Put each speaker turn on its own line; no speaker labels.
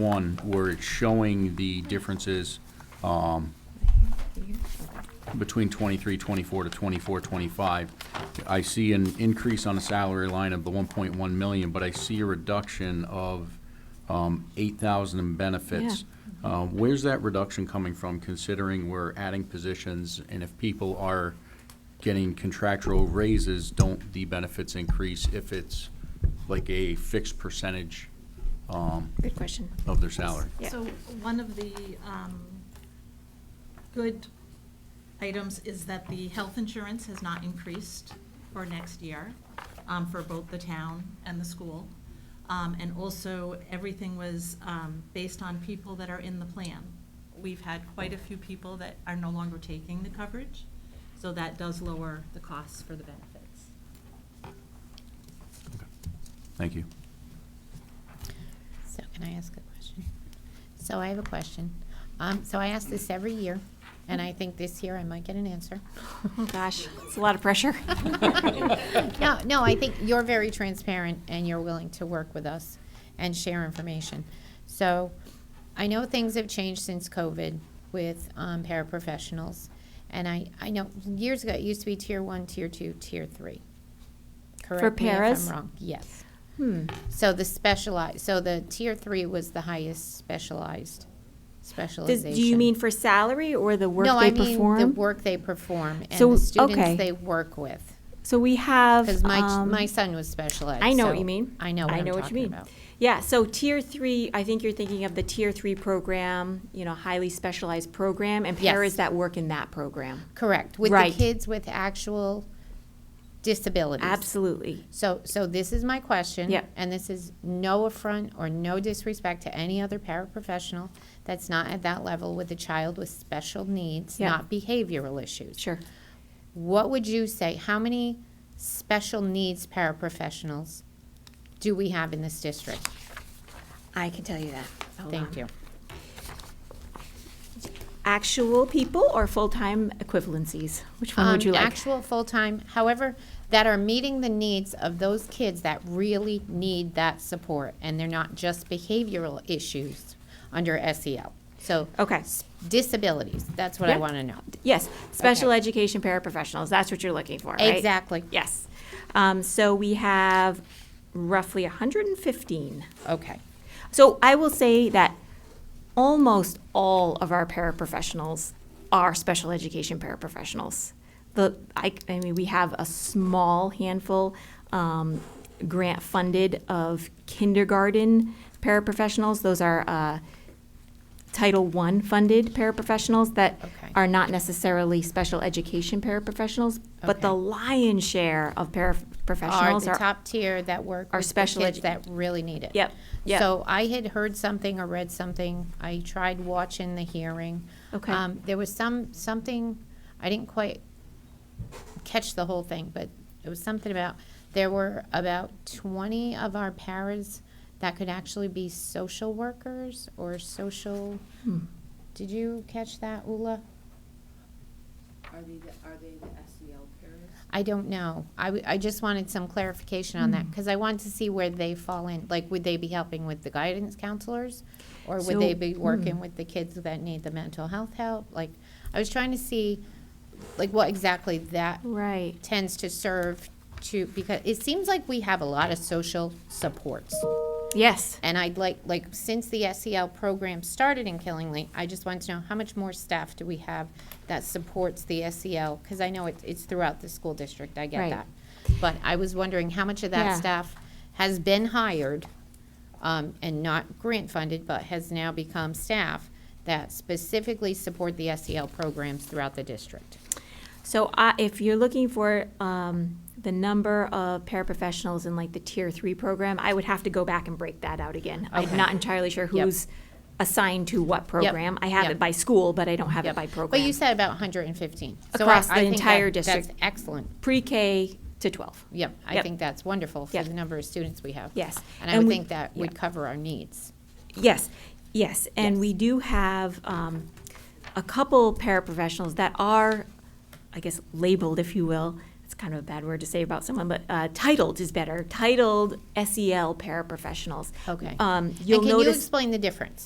one, where it's showing the differences between 23, 24 to 24, 25. I see an increase on the salary line of the 1.1 million, but I see a reduction of um, 8,000 in benefits. Uh, Where's that reduction coming from, considering we're adding positions, and if people are getting contractual raises, don't the benefits increase if it's like a fixed percentage um,
Good question.
of their salary?
Yeah.
So one of the um, good items is that the health insurance has not increased for next year um, for both the town and the school. Um, And also, everything was um, based on people that are in the plan. We've had quite a few people that are no longer taking the coverage, so that does lower the costs for the benefits.
Thank you.
So can I ask a question? So I have a question. Um, so I ask this every year, and I think this year I might get an answer.
Oh, gosh, it's a lot of pressure.
No, no, I think you're very transparent and you're willing to work with us and share information. So I know things have changed since COVID with um, paraprofessionals. And I, I know years ago, it used to be tier one, tier two, tier three. Correct me if
paras?
I'm wrong. Yes.
Hmm.
So the specialized, so the tier three was the highest specialized,
Does-
specialization.
Do you mean for salary or the work they
No, I mean
perform?
the work they perform
So,
and the students
okay.
they work with.
So we have.
Because my,
um,
my son was special ed.
I know what
so
you mean.
I know what I'm talking
you mean.
about.
Yeah, so tier three, I think you're thinking of the tier three program, you know, highly specialized program, and
Yes.
paras that work in that program.
Correct. With
Right.
the kids with actual disabilities.
Absolutely.
So, so this is my question.
Yep.
And this is no affront or no disrespect to any other paraprofessional that's not at that level with a child with special needs,
Yep.
not behavioral issues.
Sure.
What would you say? How many special needs paraprofessionals do we have in this district?
I can tell you that. Hold
Thank
on.
you.
Actual people or full-time equivalencies? Which one would
Um,
you like?
Actual full-time, however, that are meeting the needs of those kids that really need that support, and they're not just behavioral issues under SEL. So
Okay.
s- disabilities, that's what I
Yep.
want to know.
Yes, special education paraprofessionals, that's what you're looking for, right?
Exactly.
Yes. Um, so we have roughly 115.
Okay,
So I will say that almost all of our paraprofessionals are special education paraprofessionals. The, I, I mean, we have a small handful, um, grant funded of kindergarten paraprofessionals. Those are, uh, Title I funded paraprofessionals that
Okay.
are not necessarily special education paraprofessionals, but the
Okay.
lion's share of
are
paraprofessionals
the
are,
top tier that work
are
with the
special
kids
edu-
that really need it.
Yep, yep.
So I had heard something or read something, I tried watching the hearing.
Okay.
Um, There was some, something, I didn't quite catch the whole thing, but it was something about, there were about twenty of our paras that could actually be social workers or social,
Hmm.
did you catch that, Ula?
Are they, the- are they the E SEL parents?
I don't know. I, w- I just wanted some clarification on
Hmm.
that, because I wanted to see where they fall in. Like, would they be helping with the guidance counselors? Or would they
So- hmm.
be working with the kids that need the mental health help? Like, I was trying to see, like, what exactly that
right.
tends to serve to, because it seems like we have a lot of social supports.
Yes.
And I'd like, like, since the SEL program started in Killingly, I just want to know how much more staff do we have that supports the SEL? Because I know it, it's throughout the school district, I get
Right.
that. But I was wondering how much of that
Yeah.
staff has been hired um, and not grant-funded, but has now become staff that specifically support the SEL programs throughout the district?
So I, if you're looking for um, the number of paraprofessionals in like the tier three program, I would have to go back and break that out again. I'm
Okay.
not entirely sure
Yep.
who's assigned to what program. I have
Yep.
it by school, but I don't have it by
But
program.
you said about 115. So I-
Across the
I think
entire
that-
district.
That's excellent.
Pre-K to 12.
Yep, I
Yep.
think that's wonderful for
Yep.
the number of students we have.
Yes.
And I
And
would
we-
think that would
yeah.
cover our needs.
Yes, yes, and
Yes.
we do have um, a couple paraprofessionals that are, I guess, labeled, if you will. It's kind of a bad word to say about someone, but uh, titled is better. Titled SEL paraprofessionals.
Okay.
Um,
And
you'll
can you
notice.
explain the difference?